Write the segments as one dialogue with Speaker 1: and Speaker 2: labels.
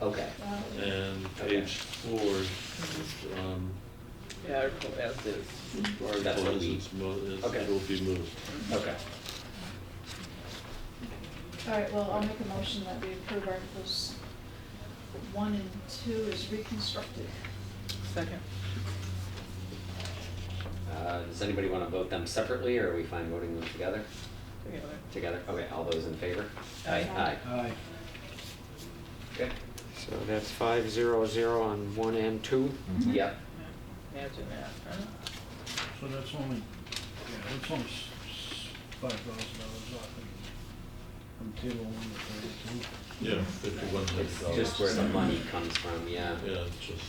Speaker 1: Uh, page four, um,
Speaker 2: Yeah, article as is. That's
Speaker 1: article
Speaker 2: what
Speaker 1: as
Speaker 2: we-
Speaker 1: it's mo- as
Speaker 2: Okay.
Speaker 1: it will be moved.
Speaker 2: Okay.
Speaker 3: All right, well, I'll make a motion that we approve Articles 1 and 2 as reconstructed.
Speaker 2: Second.
Speaker 4: Uh, Does anybody want to vote them separately, or are we fine voting them together?
Speaker 2: Together.
Speaker 4: Together? Okay, all those in favor?
Speaker 2: Aye.
Speaker 4: Aye.
Speaker 5: Aye.
Speaker 4: Okay.
Speaker 6: So that's five zero zero on one and two.
Speaker 4: Yep.
Speaker 2: Imagine that, huh?
Speaker 5: So that's only, yeah, that's only five thousand dollars off from- from table one to thirty-two.
Speaker 1: Yeah, fifty-one
Speaker 4: It's
Speaker 1: hundred dollars.
Speaker 4: just where the money comes from, yeah.
Speaker 1: Yeah, it's just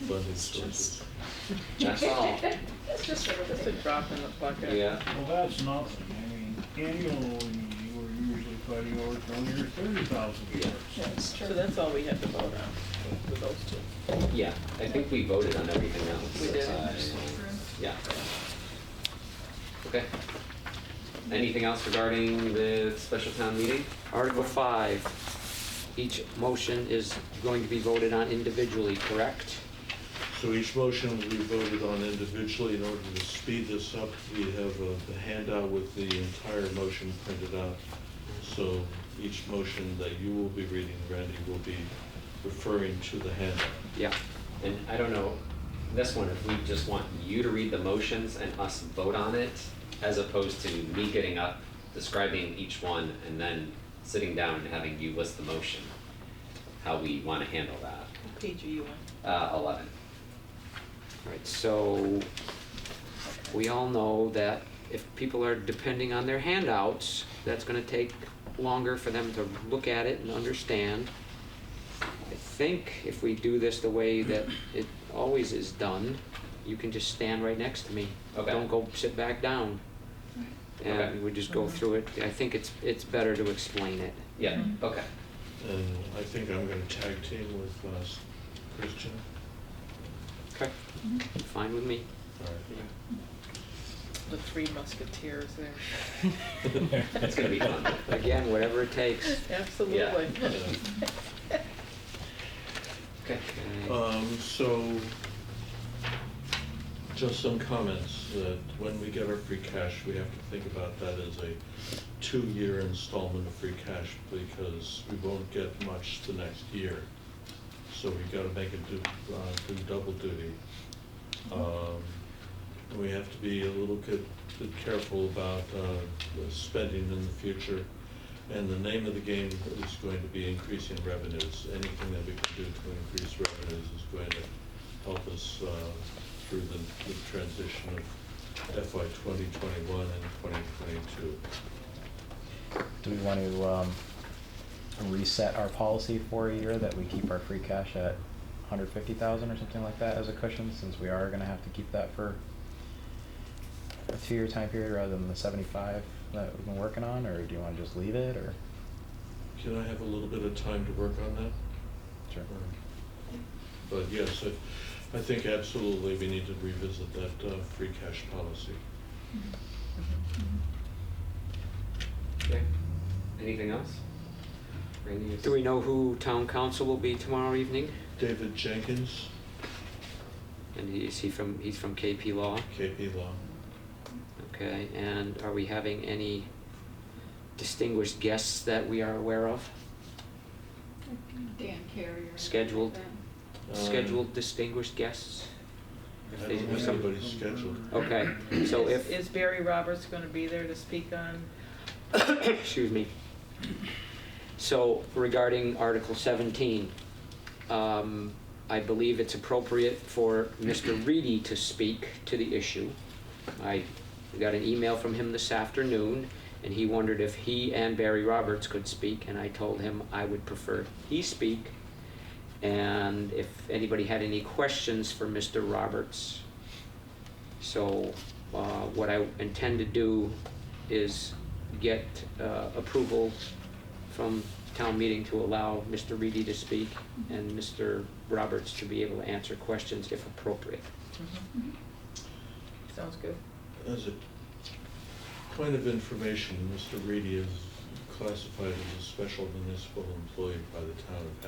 Speaker 1: the funding sources.
Speaker 4: That's all.
Speaker 3: That's just
Speaker 2: Just a
Speaker 3: everything.
Speaker 2: drop in the bucket.
Speaker 4: Yeah.
Speaker 5: Well, that's nothing, I mean, annually, E, we're usually fighting over twenty or thirty thousand
Speaker 4: Yeah.
Speaker 5: dollars.
Speaker 3: That's
Speaker 2: So
Speaker 3: true.
Speaker 2: that's all we had to vote on, with those two.
Speaker 4: Yeah, I think we voted on everything else.
Speaker 2: We did.
Speaker 4: Uh, Yeah. Okay. Anything else regarding the special town meeting?
Speaker 6: Article five, each motion is going to be voted on individually, correct?
Speaker 1: So each motion will be voted on individually. In order to speed this up, we have a the handout with the entire motion printed out. So each motion that you will be reading, Randy, will be referring to the handout.
Speaker 6: Yeah.
Speaker 4: And I don't know, this one, if we just want you to read the motions and us vote on it, as opposed to me getting up, describing each one, and then sitting down and having you list the motion, how we want to handle that.
Speaker 2: What page are you on?
Speaker 4: Uh, 11.
Speaker 6: All right, so we all know that if people are depending on their handouts, that's gonna take longer for them to look at it and understand. I think if we do this the way that it always is done, you can just stand right next to me.
Speaker 4: Okay.
Speaker 6: Don't go sit back down.
Speaker 4: Okay.
Speaker 6: And we just go
Speaker 2: Mhm.
Speaker 6: through it. I think it's, it's better to explain it.
Speaker 4: Yeah, okay.
Speaker 1: And I think I'm going to tag team with uh, Christian.
Speaker 6: Okay. Fine with me.
Speaker 1: All right.
Speaker 2: The Three Musketeers there.
Speaker 4: It's going to be fun.
Speaker 6: Again, whatever it takes.
Speaker 2: Absolutely.
Speaker 4: Okay.
Speaker 6: Okay.
Speaker 1: Um, so, just some comments, that when we get our free cash, we have to think about that as a two-year installment of free cash, because we won't get much the next year. So we gotta make it do, uh, do double duty. Um, and we have to be a little bit, bit careful about, uh, the spending in the future. And the name of the game is going to be increasing revenues. Anything that we can do to increase revenues is going to help us uh, through the the transition of FY 2021 and 2022.
Speaker 7: Do we want to um, reset our policy for a year that we keep our free cash at 150,000 or something like that as a cushion, since we are going to have to keep that for a two-year time period rather than the 75 that we've been working on, or do you want to just leave it, or?
Speaker 1: Can I have a little bit of time to work on that?
Speaker 7: Sure.
Speaker 1: Or- But yes, I- I think absolutely we need to revisit that uh, free cash policy.
Speaker 4: Okay. Anything else? Randy, is-
Speaker 6: Do we know who town council will be tomorrow evening?
Speaker 1: David Jenkins,
Speaker 6: And he- is he from, he's from KP Law?
Speaker 1: KP Law.
Speaker 6: Okay, and are we having any distinguished guests that we are aware of?
Speaker 3: Dan Carrier.
Speaker 6: Scheduled.
Speaker 3: Then.
Speaker 1: Uh,
Speaker 6: Scheduled distinguished guests?
Speaker 1: I don't have anybody scheduled.
Speaker 6: Okay, so
Speaker 2: Is-
Speaker 6: if,
Speaker 2: Is Barry Roberts gonna be there to speak on?
Speaker 6: excuse me. So regarding Article 17, um, I believe it's appropriate for Mr. Reedy to speak to the issue. I got an email from him this afternoon, and he wondered if he and Barry Roberts could speak, and I told him I would prefer he speak. And if anybody had any questions for Mr. Roberts. So, uh, what I intend to do is get, uh, approval from town meeting to allow Mr. Reedy to speak and Mr. Roberts to be able to answer questions if appropriate.
Speaker 2: Mm-hmm. Sounds good.
Speaker 1: As a point of information, Mr. Reedy is classified as a special municipal employee by the town of